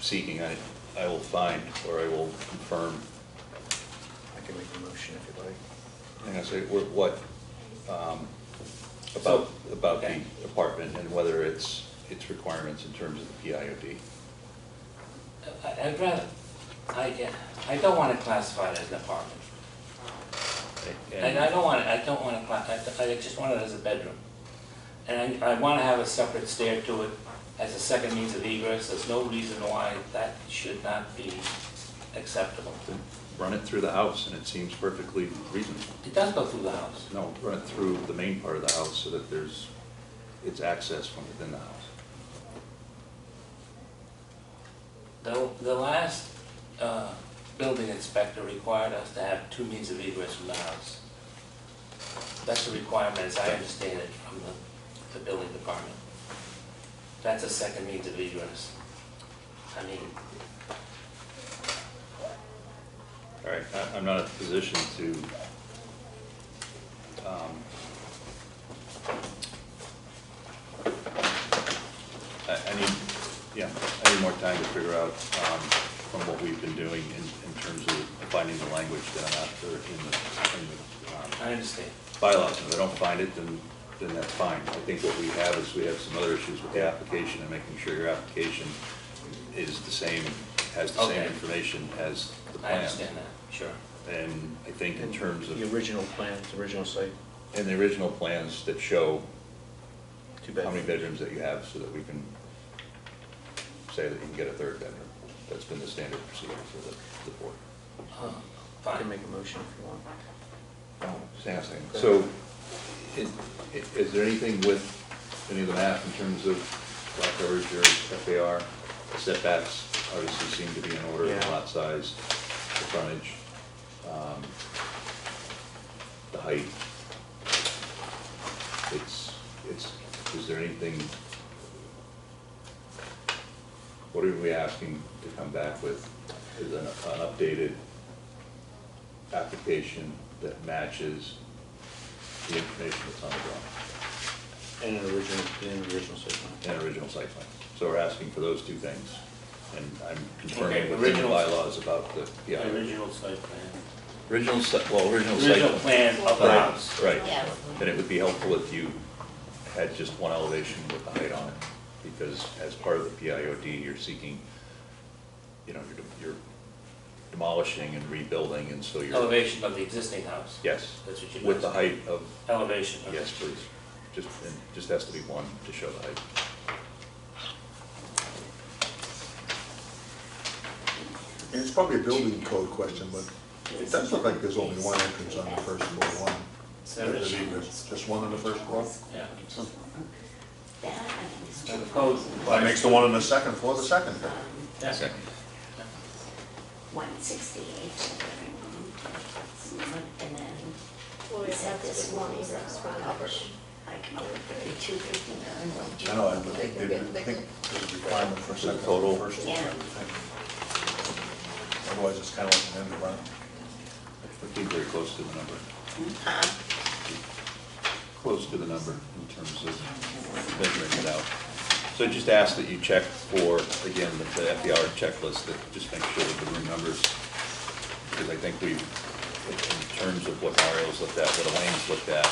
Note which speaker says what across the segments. Speaker 1: seeking, I, I will find, or I will confirm.
Speaker 2: I can make a motion if you'd like.
Speaker 1: And I say, what, what, um, about, about the
Speaker 3: okay.
Speaker 1: apartment and whether it's, its requirements in terms of the PIOD.
Speaker 3: I- I'd rather, I, I don't wanna classify it as an apartment. And I don't want, I don't want to, I I just want it as a bedroom. And I I want to have a separate stair to it as a second means of egress. There's no reason why that should not be acceptable.
Speaker 1: Then Run it through the house, and it seems perfectly reasonable.
Speaker 3: It does go through the house.
Speaker 1: No, run it through the main part of the house so that there's, it's access from within the house.
Speaker 3: The, the last uh, building inspector required us to have two means of egress from the house. That's a requirement, as I understand it, from the, the building department. That's a second means of egress. I mean,
Speaker 1: All right, I, I'm not in a position to, um, I, I need, yeah, I need more time to figure out, um, from what we've been doing in, in terms of finding the language that I'm after in the, in the, um,
Speaker 3: I understand.
Speaker 1: bylaws, and if I don't find it, then, then that's fine. I think what we have is we have some other issues with the application and making sure your application is the same, has the same
Speaker 3: Okay.
Speaker 1: information as the
Speaker 3: I
Speaker 1: plan.
Speaker 3: understand that, sure.
Speaker 1: And I think in terms of,
Speaker 2: The original plans, the original site,
Speaker 1: and the original plans that show
Speaker 2: two
Speaker 1: how many bedrooms
Speaker 2: bedrooms.
Speaker 1: that you have, so that we can say that you can get a third bedroom. That's been the standard procedure for the, the board.
Speaker 3: Uh,
Speaker 2: I can
Speaker 3: Fine.
Speaker 2: make a motion if you want. Oh.
Speaker 1: Just asking. So, is, is there anything with any of the map in terms of lot coverage or FAR? Setbacks obviously seem to be in order, the
Speaker 2: Yeah.
Speaker 1: lot size, the frontage, um, the height. It's, it's, is there anything, what are we asking to come back with? Is an an updated application that matches the information that's on the drawing
Speaker 2: And an original, and an original site plan.
Speaker 1: and original site plan. So we're asking for those two things, and I'm
Speaker 3: Okay,
Speaker 1: confirming with the
Speaker 3: original-
Speaker 1: bylaws about the, uh, yeah.
Speaker 3: Original site plan.
Speaker 1: Original, si- well, original site.
Speaker 3: Original plan of the
Speaker 1: Right,
Speaker 3: house.
Speaker 1: Right.
Speaker 4: Yeah.
Speaker 1: Then it would be helpful if you had just one elevation with the height on it, because as part of the PIOD, you're seeking, you know, you're de- you're demolishing and rebuilding, and so you're.
Speaker 3: Elevation of the existing house.
Speaker 1: Yes,
Speaker 3: That's what you
Speaker 1: with the
Speaker 3: meant.
Speaker 1: height of
Speaker 3: Elevation. okay.
Speaker 1: Yes, please. Just, it just has to be one to show the height.
Speaker 5: And It's probably a building code question, but it does look like there's only one entrance on the first floor, one.
Speaker 3: There is.
Speaker 5: There's Just one on the first floor?
Speaker 3: Yeah.
Speaker 4: Yeah.
Speaker 3: And the code.
Speaker 5: That makes the one on the second floor the second.
Speaker 3: Yeah.
Speaker 1: Second.
Speaker 4: One sixty-eight. And
Speaker 6: Well,
Speaker 4: then,
Speaker 6: we
Speaker 4: is
Speaker 6: have
Speaker 4: that
Speaker 6: to
Speaker 4: this
Speaker 6: do
Speaker 4: one,
Speaker 6: one
Speaker 4: is that
Speaker 6: egress
Speaker 4: one
Speaker 6: front.
Speaker 4: over? I come up with thirty-two fifty-nine.
Speaker 5: I know, I would think, I think there's a requirement for a second
Speaker 1: Total.
Speaker 5: floor, first floor. I
Speaker 4: Yeah.
Speaker 5: think. Otherwise, it's kind of like an end run.
Speaker 1: We came very close to the number,
Speaker 4: Huh?
Speaker 1: close to the number in terms of measuring it out. So just ask that you check for, again, the the FER checklist, that just make sure that the room numbers, because I think we, in terms of what Mario's looked at, what Elaine's looked at,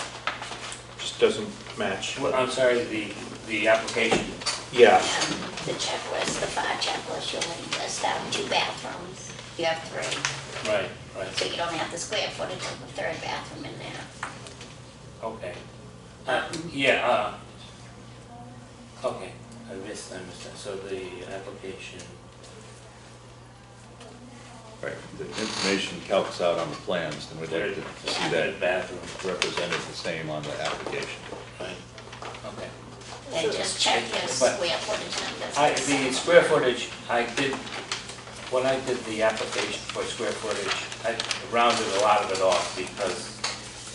Speaker 7: just doesn't match.
Speaker 3: Well, I'm sorry, the, the application,
Speaker 7: Yeah,
Speaker 4: The checklist, the fire checklist, you'll only list out two bathrooms, you have three,
Speaker 3: right, right,
Speaker 4: so you don't have the square footage of the third bathroom in there.
Speaker 3: okay. Uh, Yeah, uh, okay, I missed, I missed that, so the application,
Speaker 1: right, the information calcs out on the plans, then we'd like to see
Speaker 3: third
Speaker 1: that
Speaker 3: bathroom,
Speaker 1: represented the same on the application.
Speaker 3: right, okay.
Speaker 4: They just check your
Speaker 3: But-
Speaker 4: square footage numbers.
Speaker 3: I, the square footage, I did, when I did the application for square footage, I rounded a lot of it off because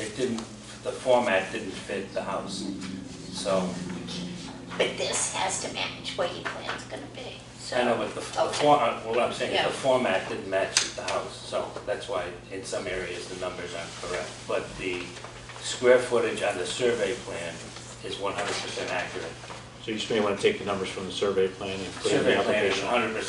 Speaker 3: it didn't, the format didn't fit the house. So,
Speaker 4: But this has to match where your plan's gonna be, so.
Speaker 3: I know, but the, the
Speaker 4: Okay.
Speaker 3: for- uh, what I'm saying is the
Speaker 4: Yeah.
Speaker 3: format didn't match the house, so that's why in some areas the numbers aren't correct. But the square footage on the survey plan is one hundred percent accurate.
Speaker 7: so you just may want to take the numbers from the survey plan and put it in the
Speaker 3: Survey plan is
Speaker 7: application.
Speaker 3: one hundred percent